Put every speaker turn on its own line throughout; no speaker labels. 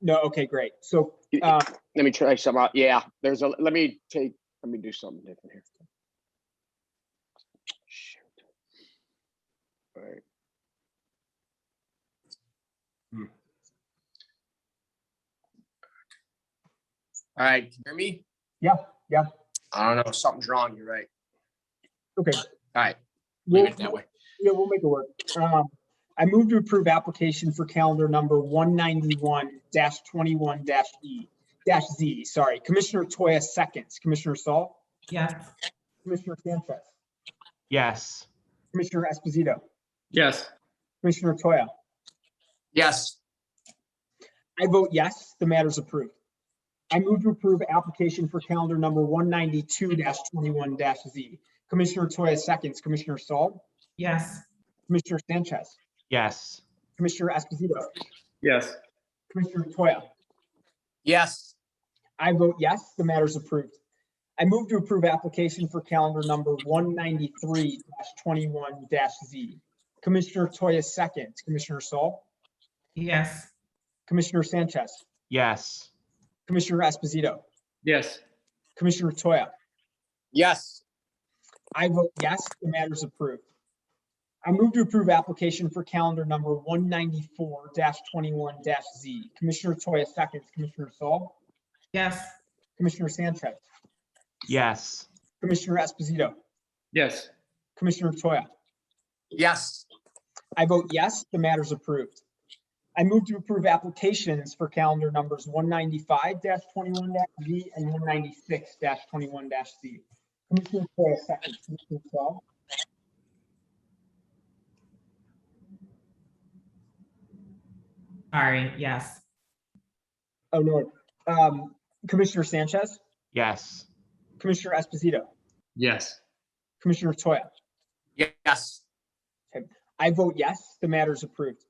No, okay, great. So,
You-
uh,
Let me try some out. Yeah, there's a, let me take, let me do something different here. Shoot. All right. Hmm. All right, can you hear me?
Yeah, yeah.
I don't know, something's wrong, you're right.
okay.
All right,
we'll-
leave it that way.
Yeah, we'll make it work. Um, I move to approve application for calendar number one ninety-one twenty-one E, dash Z, sorry. Commissioner Toya seconds, Commissioner Saul,
Yes.
Commissioner Sanchez,
Yes.
Commissioner Esposito,
Yes.
Commissioner Toya.
Yes,
I vote yes, the matter is approved. I move to approve application for calendar number one ninety-two twenty-one Z. Commissioner Toya seconds, Commissioner Saul,
Yes.
Commissioner Sanchez,
Yes.
Commissioner Esposito,
Yes.
Commissioner Toya.
yes,
I vote yes, the matter is approved. I move to approve application for calendar number one ninety-three twenty-one Z. Commissioner Toya seconds, Commissioner Saul,
Yes.
Commissioner Sanchez,
Yes.
Commissioner Esposito,
Yes.
Commissioner Toya.
yes,
I vote yes, the matter is approved. I move to approve application for calendar number one ninety-four twenty-one Z. Commissioner Toya seconds, Commissioner Saul,
Yes.
Commissioner Sanchez,
Yes.
Commissioner Esposito,
Yes.
Commissioner Toya.
yes,
I vote yes, the matter is approved. I move to approve applications for calendar numbers one ninety-five twenty-one Z and one ninety-six twenty-one Z. Commissioner Toya seconds, Commissioner Saul,
Sorry, yes.
oh, no, um, Commissioner Sanchez,
Yes.
Commissioner Esposito,
Yes.
Commissioner Toya.
yes,
I vote yes, the matter is approved.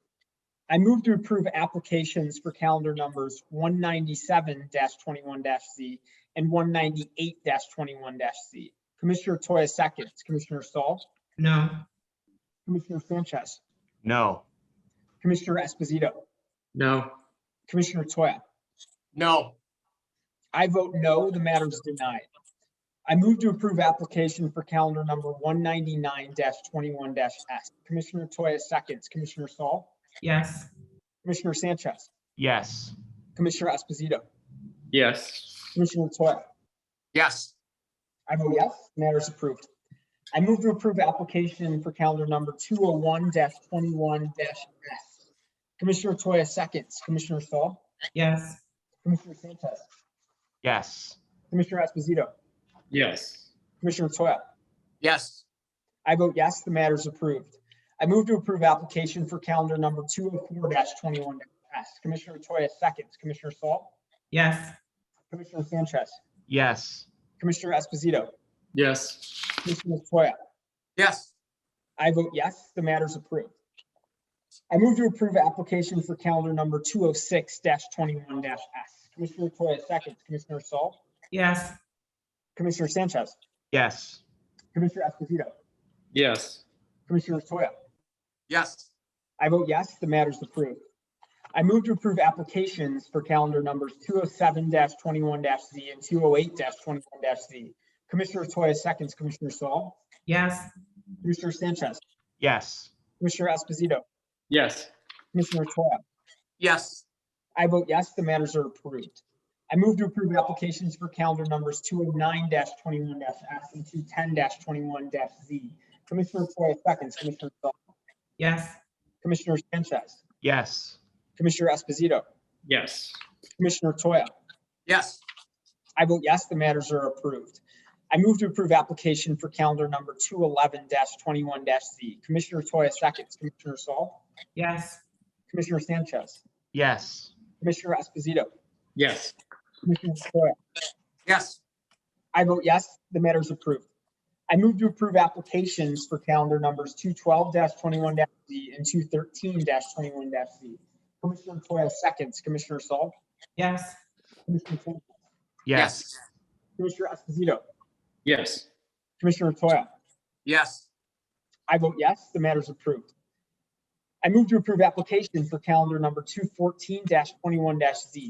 I move to approve applications for calendar numbers one ninety-seven twenty-one Z and one ninety-eight twenty-one Z. Commissioner Toya seconds, Commissioner Saul,
No.
Commissioner Sanchez,
No.
Commissioner Esposito,
No.
Commissioner Toya.
no,
I vote no, the matter is denied. I move to approve application for calendar number one ninety-nine twenty-one S. Commissioner Toya seconds, Commissioner Saul,
Yes.
Commissioner Sanchez,
Yes.
Commissioner Esposito,
Yes.
Commissioner Toya.
yes,
I vote yes, matter is approved. I move to approve application for calendar number two oh one twenty-one S. Commissioner Toya seconds, Commissioner Saul,
Yes.
Commissioner Sanchez,
Yes.
Commissioner Esposito,
Yes.
Commissioner Toya.
yes,
I vote yes, the matter is approved. I move to approve application for calendar number two oh four twenty-one S. Commissioner Toya seconds, Commissioner Saul,
Yes.
Commissioner Sanchez,
Yes.
Commissioner Esposito,
Yes.
Commissioner Toya.
yes,
I vote yes, the matter is approved. I move to approve application for calendar number 206-21-S. Commissioner Toya seconds, Commissioner Saul,
Yes.
Commissioner Sanchez,
Yes.
Commissioner Esposito,
Yes.
Commissioner Toya.
yes,
I vote yes, the matter is approved. I move to approve applications for calendar numbers 207-21-Z and 208-21-Z. Commissioner Toya seconds, Commissioner Saul,
Yes.
Commissioner Sanchez,
Yes.
Commissioner Esposito,
Yes.
Commissioner Toya.
yes,
I vote yes, the matters are approved. I move to approve applications for calendar numbers 209-21-S and 210-21-Z. Commissioner Toya seconds, Commissioner Saul,
Yes.
Commissioner Sanchez,
Yes.
Commissioner Esposito,
Yes.
Commissioner Toya.
yes,
I vote yes, the matters are approved. I move to approve application for calendar number 211-21-Z. Commissioner Toya seconds, Commissioner Saul,
Yes.
Commissioner Sanchez,
Yes.
Commissioner Esposito,
Yes.
Commissioner Toya.
yes,
I vote yes, the matter is approved. I move to approve applications for calendar numbers two twelve twenty-one Z and two thirteen twenty-one Z. Commissioner Toya seconds, Commissioner Saul,
Yes.
Commissioner Sanchez,
yes,
Yes.
Commissioner Esposito,
Yes.
Commissioner Toya.
yes,
I vote yes, the matter is approved. I move to approve application for calendar number two fourteen twenty-one Z.